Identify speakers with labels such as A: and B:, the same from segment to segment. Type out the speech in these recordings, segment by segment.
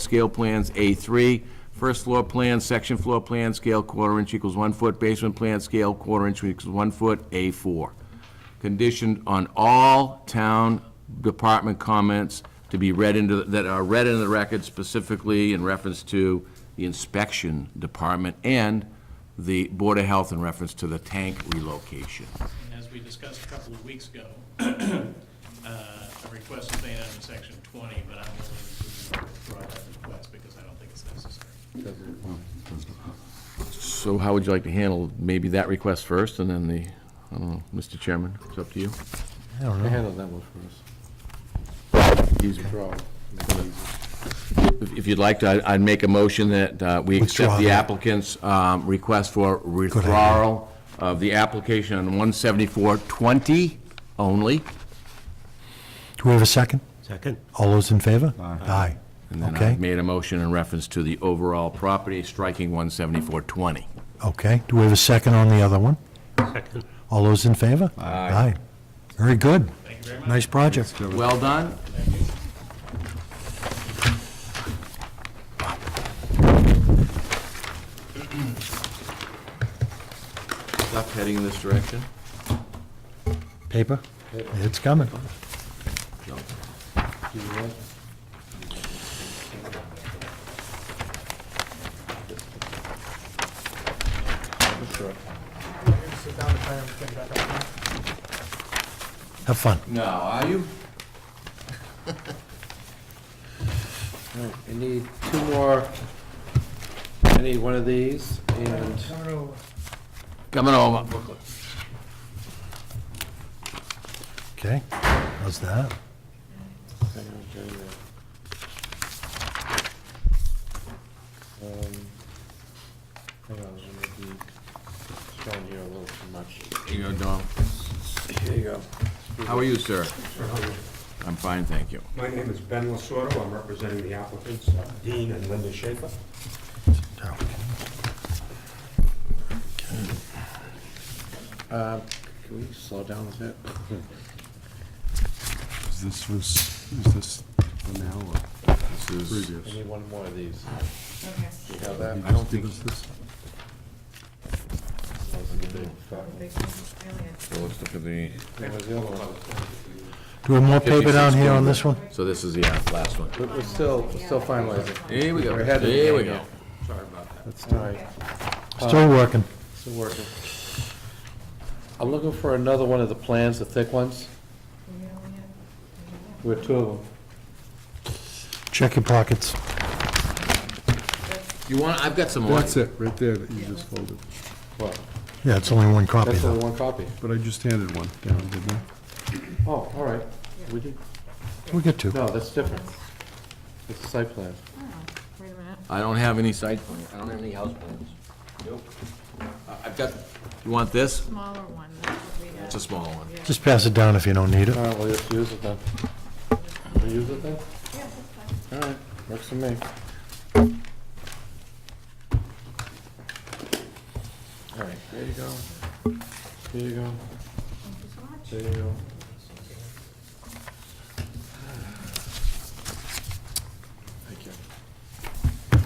A: Scale plans A3, first floor plan, section floor plan, scale quarter inch equals one foot, basement plan, scale quarter inch equals one foot, A4. Conditioned on all town department comments to be read into, that are read into the record specifically in reference to the inspection department and the Board of Health in reference to the tank relocation.
B: And as we discussed a couple of weeks ago, uh, a request is made under section 20, but I'm willing to withdraw that request because I don't think it's necessary.
A: So how would you like to handle maybe that request first and then the, I don't know, Mr. Chairman, it's up to you.
C: Handle that one for us.
A: Easy.
C: Draw, make it easy.
A: If if you'd like to, I- I'd make a motion that uh, we accept
D: Withdraw
A: the
D: that.
A: applicant's um, request for withdrawal of the application on 174-20 only.
D: Do we have a second?
E: Second.
D: All those in favor? Aye.
A: And then uh, I
D: Okay,
A: made a motion in reference to the overall property, striking 174-20.
D: okay. Do we have a second on the other one?
E: Second.
D: All those in favor? Aye. Very good.
B: Thank you very much.
D: Nice project.
A: Well done. Stop heading in this direction.
D: Paper? It's coming. Have fun.
A: No, are you?
C: All right, I need two more, I need one of these, and
A: Coming over.
D: Okay, how's that?
C: hang on, turn there. Um, Hang on, I'm gonna be showing here a little too much.
A: Here you go, Dom.
C: Here you go.
A: How are you, sir? I'm fine, thank you.
F: My name is Ben Lasordo. I'm representing the applicants, uh, Dean and Linda Schaefer.
C: Uh, Can we slow down a bit?
G: Is this, was, is this the now or
A: This is-
G: previous?
C: I need one more of these.
H: Okay.
C: You have that?
G: I don't think. Give us this?
H: Big alien.
A: so let's look at the-
C: That was the other one.
D: Do we have more paper down here on this one?
A: So this is the uh, last one.
C: But we're still, we're still finalizing.
A: Here we go,
C: We're ahead of the
A: here we
C: game
A: go.
C: All right,
D: Still working.
C: still working. I'm looking for another one of the plans, the thick ones. We have two of them.
D: Check your pockets.
A: You want, I've got some more.
G: That's it, right there that you just folded.
C: Well,
D: Yeah, it's only one copy
C: that's
D: though.
C: only one copy.
G: But I just handed one down, didn't I?
C: Oh, all right. We did,
D: We'll get to. it.
C: no, that's different. It's a site plan.
H: Oh, Wait a minute.
A: I don't have any site plan, I don't have any house plans. Nope. I- I've got, you want this?
H: Smaller one, that's what we
A: It's a
H: had.
A: small one.
D: Just pass it down if you don't need it.
C: All right, we'll just use it then. We use it then? All right, works for me. All right, there you go. There you go. There you go. Thank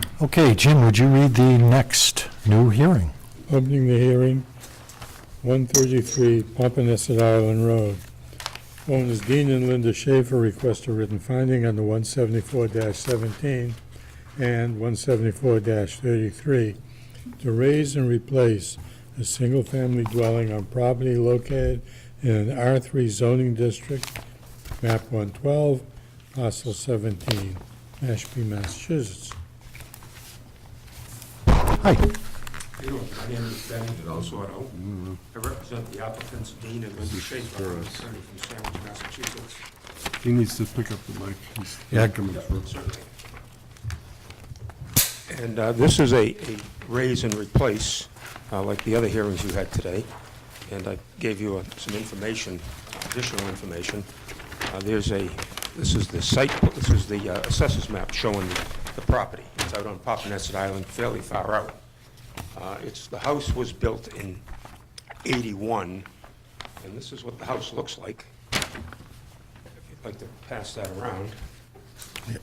C: you.
D: Okay, Jim, would you read the next new hearing?
I: Opening the hearing, 133 Pompanesset Island Road. Owners Dean and Linda Schaefer request a written finding under 174-17 and 174-33 to raise and replace a single-family dwelling on property located in an R3 zoning district, map 112, parcel 17, Mashpee, Massachusetts.
D: Hi,
F: How you doing? My name is Ben Lasordo. I represent the applicants, Dean and Linda Schaefer. I'm attorney from Sandwich, Massachusetts.
G: He needs to pick up the mic. He's
D: Yeah.
G: not coming through.
F: And uh, this is a a raise and replace, uh, like the other hearings you had today, and I gave you uh, some information, additional information. Uh, There's a, this is the site, this is the uh, assessors map showing the- the property. It's out on Papaneset Island, fairly far out. Uh, It's, the house was built in 81, and this is what the house looks like. If you'd like to pass that around.